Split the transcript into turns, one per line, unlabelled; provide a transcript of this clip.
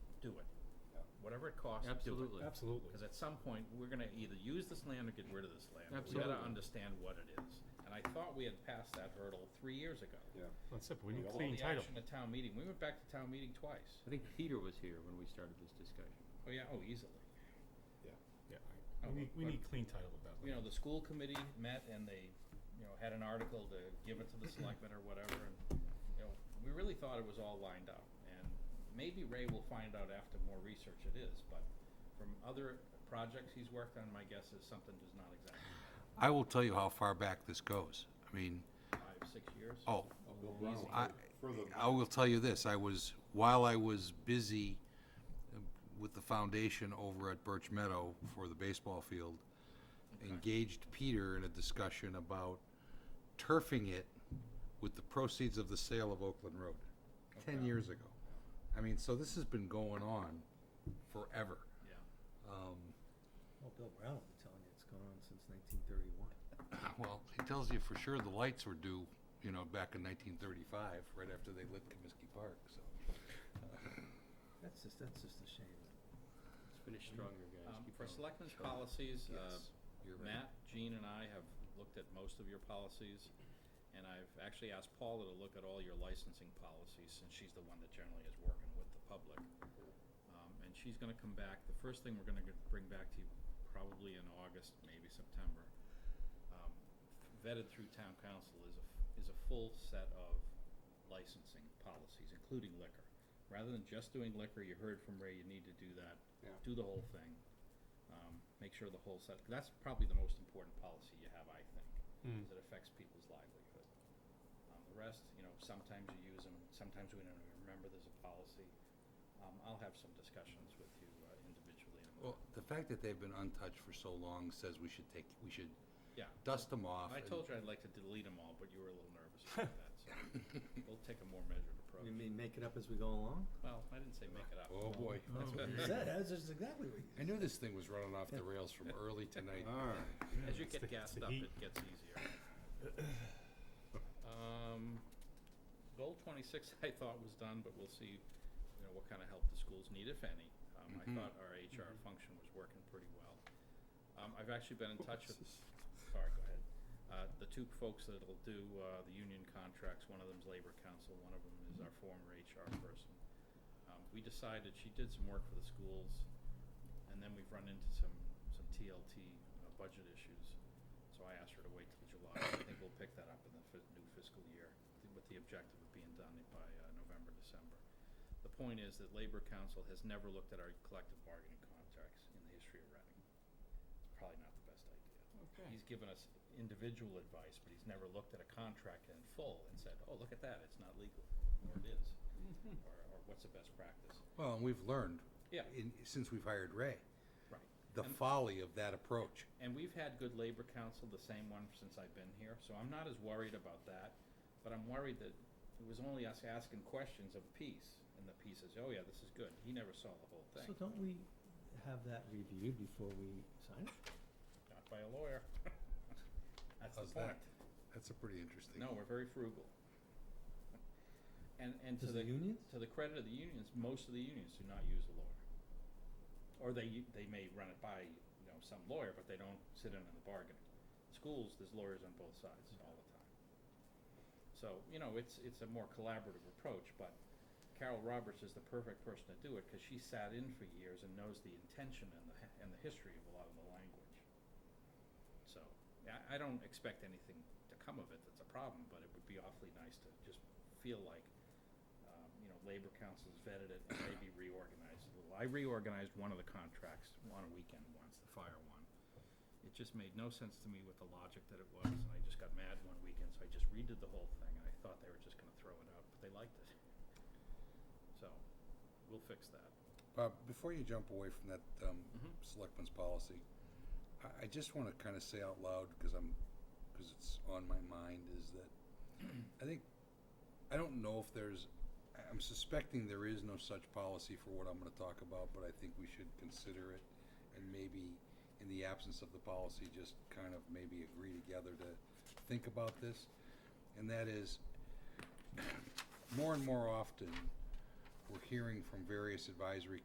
it costs to do it.
Absolutely.
Absolutely.
Because at some point, we're gonna either use this land or get rid of this land. We gotta
Absolutely.
understand what it is. And I thought we had passed that hurdle three years ago.
Yeah.
That's it, we need
All
clean
the
title.
action at town meeting, we went back to town meeting twice.
I think Peter was here when we started this discussion.
Oh, yeah, oh, easily.
Yeah,
Oh,
we need, we
but-
need clean title of that.
You know, the school committee met and they, you know, had an article to give it to the selectmen or whatever, and, you know, we really thought it was all lined up. And maybe Ray will find out after more research it is, but from other projects he's worked on, my guess is something does not exactly,
I will tell you how far back this goes. I mean,
five, six years.
oh,
Bill Brown,
I,
further
I will tell you this, I was, while I was busy um, with the foundation over at Birch Meadow for the baseball field, engaged Peter in a discussion about turfing it with the proceeds of the sale of Oakland Road, ten years ago. I mean, so this has been going on forever.
Yeah.
Um,
Well, Bill Brown will be telling you it's gone on since nineteen thirty-one.
Well, it tells you for sure the lights were due, you know, back in nineteen thirty-five, right after they lit Comiskey Park, so.
That's just, that's just a shame.
Let's finish stronger, guys.
Um,
Keep
For
going.
selectmen's policies, uh,
You're right.
Matt, Jean, and I have looked at most of your policies, and I've actually asked Paula to look at all your licensing policies, since she's the one that generally is working with the public. Um, And she's gonna come back, the first thing we're gonna g- bring back to you, probably in August, maybe September, um, vetted through town council is a, f- is a full set of licensing policies, including liquor. Rather than just doing liquor, you heard from Ray, you need to do that.
Yeah.
Do the whole thing. Um, make sure the whole set, that's probably the most important policy you have, I think,
Mm.
because it affects people's livelihood. Um, the rest, you know, sometimes you use them, sometimes we don't even remember there's a policy. Um, I'll have some discussions with you uh, individually in a
Well,
moment.
the fact that they've been untouched for so long says we should take, we should
Yeah.
dust them off.
I
and-
told you I'd like to delete them all, but you were a little nervous about that, so we'll take a more measured approach.
We may make it up as we go along.
Well, I didn't say make it up.
Oh, boy.
That's what-
Is that, that's just exactly what
I knew this thing was running off the rails from early tonight.
All right.
As you
It's the-
get
it's
gassed
the
up,
heat.
it gets easier. Um, goal twenty-six I thought was done, but we'll see, you know, what kind of help the schools need, if any. Um, I
Mhm.
thought our HR function was working pretty well. Um, I've actually been in touch with, sorry, go ahead. Uh, the two folks that'll do, uh, the union contracts, one of them's labor council, one of them is our former HR person. Um, we decided, she did some work for the schools, and then we've run into some, some TLT uh, budget issues. So I asked her to wait till July. I think we'll pick that up in the fi- new fiscal year th- with the objective of being done by uh, November, December. The point is that Labor Council has never looked at our collective bargaining contracts in the history of Reading. It's probably not the best idea.
Okay.
He's given us individual advice, but he's never looked at a contract in full and said, oh, look at that, it's not legal, or it is,
Mm-hmm.
or, or what's the best practice.
Well, and we've learned.
Yeah.
In, since we've hired Ray,
Right.
the
And-
folly of that approach.
And we've had good labor counsel, the same one since I've been here, so I'm not as worried about that. But I'm worried that it was only us asking questions of a piece, and the piece says, oh yeah, this is good. He never saw the whole
we,
thing,
so don't we have that reviewed before we sign it?
not by a lawyer. That's the
How's that?
point.
That's a pretty interesting.
No, we're very frugal. And, and to
Does
the,
the unions?
to the credit of the unions, most of the unions do not use a lawyer. Or they, u- they may run it by, you know, some lawyer, but they don't sit in on the bargaining. Schools, there's lawyers on both sides all the time. So, you know, it's, it's a more collaborative approach, but Carol Roberts is the perfect person to do it, cause she sat in for years and knows the intention and the, h- and the history of a lot of the language. So, I, I don't expect anything to come of it that's a problem, but it would be awfully nice to just feel like, um, you know, labor councils vetted it and maybe reorganized a little. I reorganized one of the contracts on a weekend once, the fire one. It just made no sense to me with the logic that it was, and I just got mad one weekend, so I just redid the whole thing, and I thought they were just gonna throw it out, but they liked it. So, we'll fix that.
Bob, before you jump away from that um,
Mhm.
selectmen's policy, I, I just want to kind of say out loud because I'm because it's on my mind is that I think I don't know if there's I- I'm suspecting there is no such policy for what I'm going to talk about, but I think we should consider it and maybe in the absence of the policy, just kind of maybe agree together to think about this, and that is more and more often we're hearing from various advisory